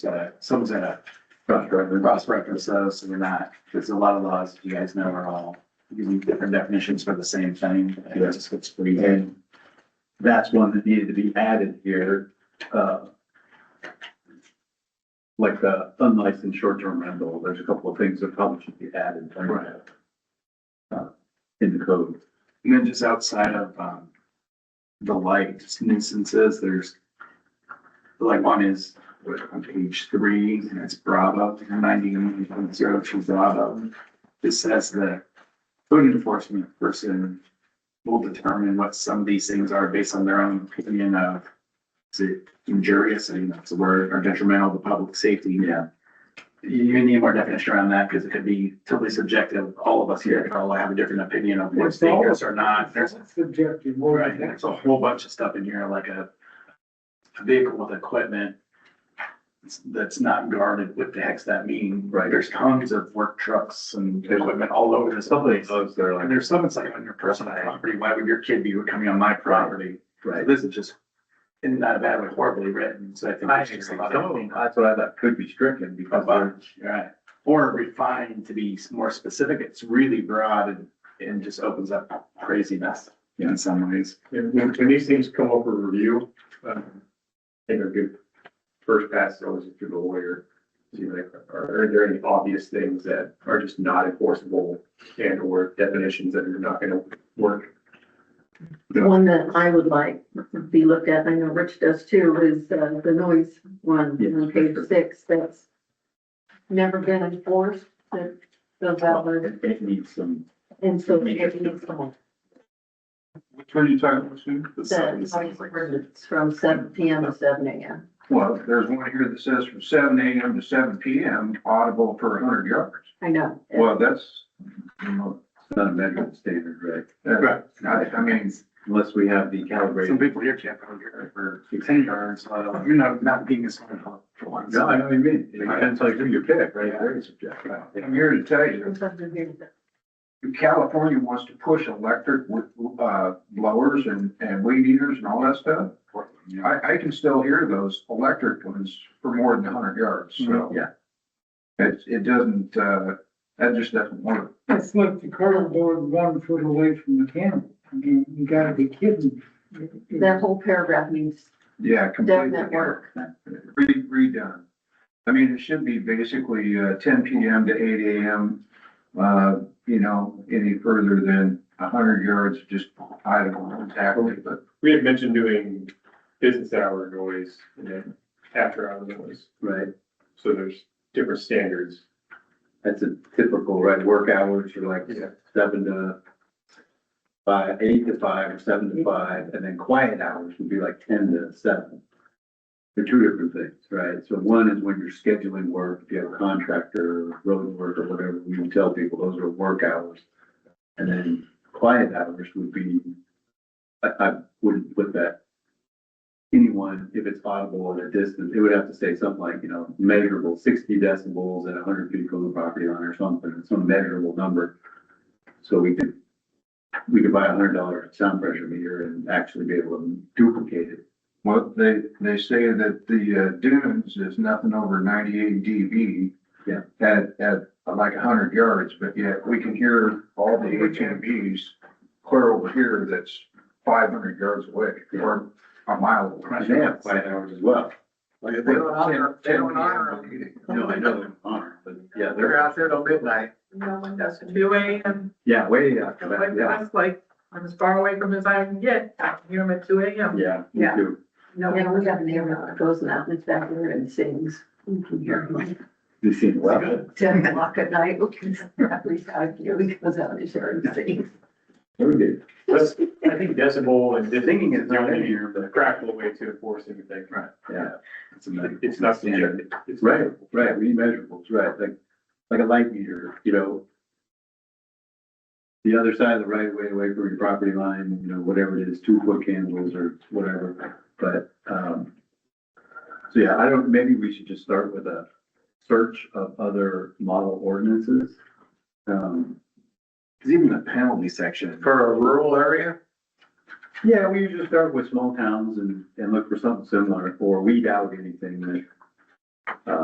uh, someone's gonna cross reference those, so we're not, because a lot of laws, you guys know, are all using different definitions for the same thing. and it just gets free. And that's one that needed to be added here, uh. Like the unlicensed short-term rental, there's a couple of things that probably should be added. like, Right. uh, In the code. And then just outside of, um, the light nuisances, there's, like one is on page three, and it's Bravo, ninety one zero two Bravo. It says that code enforcement person will determine what some of these things are based on their own opinion of, is it injurious, I mean, that's a word, or detrimental to public safety. Yeah. You need more definition around that, because it could be totally subjective, all of us here can all have a different opinion of what's It's all- dangerous or not, there's Subjective, more Right, than that. there's a whole bunch of stuff in here, like a, a vehicle with equipment that's not guarded, what the heck's that mean? Right. There's tons of work trucks and equipment all over this place. Those that are And there's some, it's like on your personal property, why would your kid be coming on my property? Right. This is just, in not a bad way, horribly written, so I think. it's just a lot of- That's what I thought could be stricken because they're, Right, or refined to be more specific, it's really broad and, and just opens up craziness Yeah. in some ways. And when, when these things come up for review, um, I think a good first pass is always through the lawyer. See like, are, are there any obvious things that are just not enforceable and or definitions that are not gonna work? Yeah. One that I would like to be looked at, I know Rich does too, is uh, the noise one Yes, on for page sure. six, that's never been enforced, that the valid, it it needs some, and so it needs someone. Which one are you talking about, Sue? The noise ordinance from seven P M to seven A M. Well, there's one here that says from seven AM to seven PM audible per hundred yards. I know. Well, that's, you know, it's not a measurement standard, right? Uh, that's, I, I mean, Unless we have the Some calibrated. people here can't go here for ten yards, uh, you know, not being as smart for for once. No, I know what you mean. It depends like who you pick, right? Very subjective. I'm here to tell you, Sometimes I hear that. California wants to push electric with, uh, blowers and, and weed eaters and all that stuff. I, I can still hear those electric ones for more than hundred yards, Mm-hmm. so. Yeah. It, it doesn't, uh, that just doesn't work. It's like the cardboard one foot away from the camera. I mean, you gotta be kidding. That whole paragraph needs Yeah, completely. definite work. Re- redone. I mean, it should be basically, uh, ten PM to eight AM, uh, you know, any further than a hundred yards, just idle, tackle it, but. We had mentioned doing business hour noise and then after hour noise, Right. so there's different standards. That's a typical, right, work hours are like Yeah. seven to five, eight to five or seven to five, and then quiet hours would be like ten to seven. They're two different things, right? So one is when you're scheduling work, if you have a contractor, road work or whatever, we would tell people those are work hours. And then quiet hours would be, I, I wouldn't put that anyone, if it's audible at a distance, it would have to say something like, you know, measurable sixty decibels at hundred feet from the property line or something, some measurable number. So we could, we could buy a hundred dollar sound pressure meter and actually be able to duplicate it. Well, they, they say that the uh, dunes is nothing over ninety-eight dB. Yeah. At, at uh, like hundred yards, but yet we can hear all the HMPs clear over here that's five hundred yards away or a mile away. And they have quiet hours as well. They don't honor, they don't honor. No, I know they aren't, but yeah, They're they're, out there till midnight. No one does, two AM, yeah, way after like, that, yeah, that's like, I'm as far away from as I can get, I can hear them at two AM. yeah. we Yeah. do. No, Yeah, we have an area that goes out in the back there and sings. You can hear him like We've seen it. Well, ten o'clock at night, because every time he goes out and shares and sings. we do. That's, I think decibel and. distance Thinking is not in really here, a but Practical way to enforce anything. Yeah. it's a medical It's not standard. subjective. It's- Right, right, we need measurables, right, like, like a light meter, you know. The other side of the right way, away from your property line, you know, whatever it is, two foot candles or whatever, but, um. So yeah, I don't, maybe we should just start with a search of other model ordinances. Um, Cause even the penalty section, For a rural area, yeah, we usually start with small towns and, and look for something similar, or weed out anything that